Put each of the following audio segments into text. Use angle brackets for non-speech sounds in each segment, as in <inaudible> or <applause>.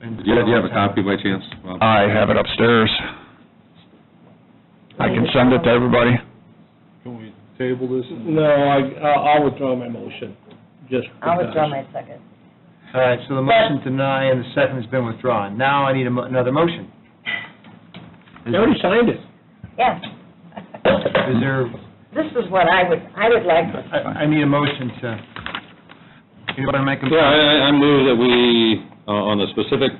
Do you, do you have a copy by chance? Well, I have it upstairs. I can send it to everybody. Can we table this? No, I, I- I'll withdraw my motion, just I'll withdraw because. my second. All right, so the motion to deny and the second's been withdrawn. Now I need a mo- another motion. Is They already signed it. Yeah. is there, This is what I would, I would like to I, I need a motion to, anybody make a? Yeah, I, I- I move that we, uh, on the specific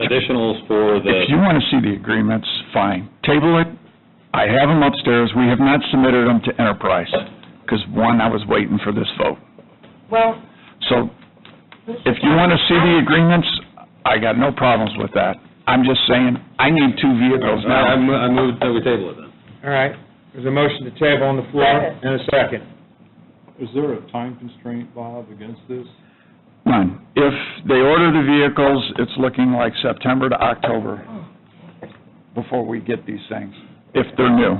additionals for If the, you want to see the agreements, fine. Table it. I have them upstairs. We have not submitted them to Enterprise, because, one, I was waiting for this vote. Well, So this if is you want to see the agreements, I got no problems with that. I'm just saying, I need two vehicles I, I now. mo- I move that we table it then. All right, there's a motion to table on the floor Second. and a second. Is there a time constraint, Bob, against this? None. If they order the vehicles, it's looking like September to October before we get these things, if they're new.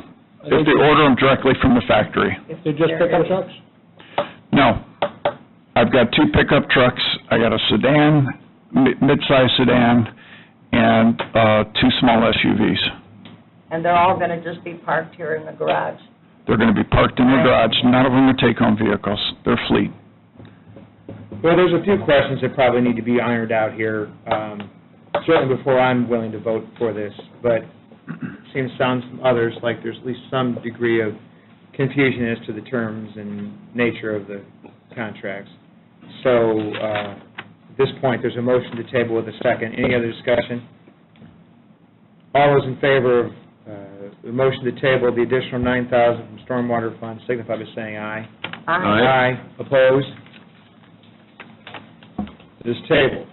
If they order them directly from the factory. if They just there pick up is- trucks? No. I've got two pickup trucks. I got a sedan, mi- mid-size sedan, and uh, two small SUVs. And they're all gonna just be parked here in the garage. They're going to be parked in the garage. None of them are take-home vehicles. They're fleet. Well, there's a few questions that probably need to be ironed out here, um, certainly before I'm willing to vote for this, but it seems, sounds from others like there's at least some degree of confusion as to the terms and nature of the contracts. So, uh, at this point, there's a motion to table with a second. Any other discussion? All those in favor of uh, the motion to table the additional 9,000 from Stormwater Fund signify by saying aye. I- Aye. Opposed? It is tabled.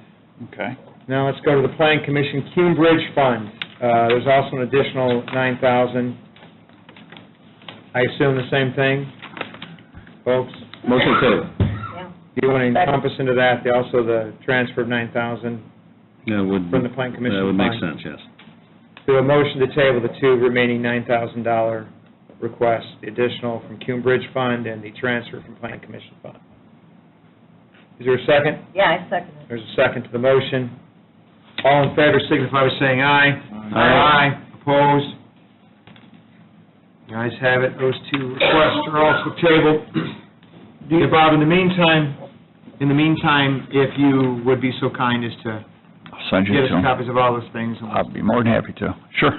Okay. Now let's go to the Plan Commission Cume Bridge Fund. Uh, There's also an additional 9000 I assume the same thing, folks? Motion to table. yeah. Do you want to encompass into that, the- also the transfer of 9000 That would, From the Plan Commission that would make fine. sense, yes. Do a motion to table the two remaining $9,000 requests, the additional from Cume Bridge Fund and the transfer from Plan Commission Fund. Is there a second? Yeah, I second it. There's a second to the motion. All in favor signify by saying aye. Aye. Opposed? The ayes have it, those two requests are also tabled. Yeah, Bob, in the meantime, in the meantime, if you would be so kind as to I'll send you get us to 'em. copies of all those things. and I'll be more than happy to. Sure.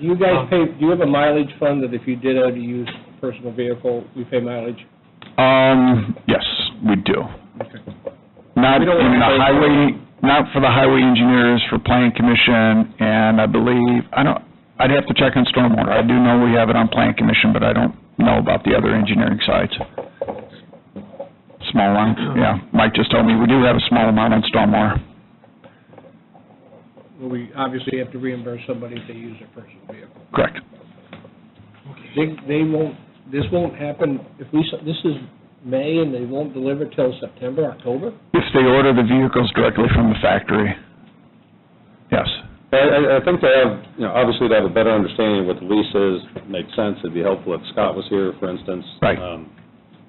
Do you Um, guys pay, do you have a mileage fund that if you did have to use a personal vehicle, we pay mileage? Um, yes, we do. Not We in don't want to the pay- highway, not for the highway engineers, for plan commission, and I believe, I don't, I'd have to check on stormwater. I do know we have it on plan commission, but I don't know about the other engineering sides. Small one, yeah. Mike just told me we do have a small amount on stormwater. Well, we obviously have to reimburse somebody if they use their personal vehicle. Correct. They, they won't, this won't happen, if we, s- this is May and they won't deliver till September, October? If they order the vehicles directly from the factory. Yes. I, I- I think to have, you know, obviously to have a better understanding of what the lease is, makes sense, it'd be helpful if Scott was here, for instance. Right. um,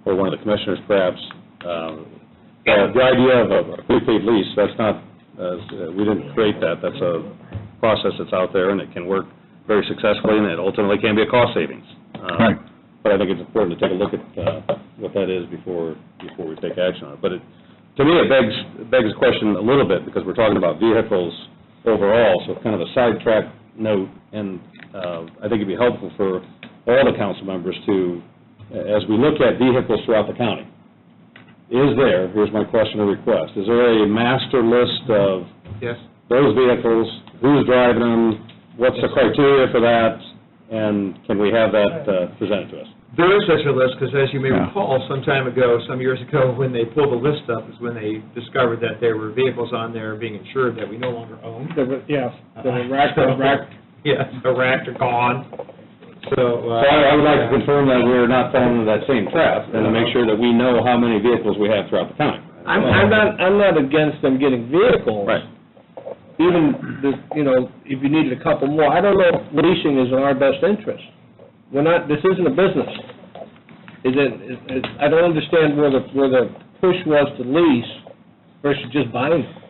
Or one of the commissioners perhaps. Um, uh, The idea of a prepaid lease, that's not, uh, we didn't create that, that's a process that's out there, and it can work very successfully, and it ultimately can be a cost savings. Um, Right. But I think it's important to take a look at uh, what that is before, before we take action on it. But it, to me, it begs, begs the question a little bit, because we're talking about vehicles overall, so kind of a sidetrack note, and uh, I think it'd be helpful for all the council members to, as we look at vehicles throughout the county, is there, here's my question or request, is there a master list of Yes? those vehicles, who's driving them, what's the criteria for that, and can we have that uh, presented to us? There is such a list, because as you may Yeah. recall, some time ago, some years ago, when they pulled the list up, is when they discovered that there were vehicles on there being insured that we no longer own. There were, yeah, there were rack, rack, <laughs> Yes, the rack are gone, so. uh, So I I would like to confirm that we're not falling into that same trap, and to make sure that we know how many vehicles we have throughout the county. I'm, I'm not, I'm not against them getting vehicles. Right. Even, the you know, if you needed a couple more, I don't know if leasing is in our best interest. We're not, this isn't a business. Is it, is- is- I don't understand where the, where the push was to lease versus just buying. them.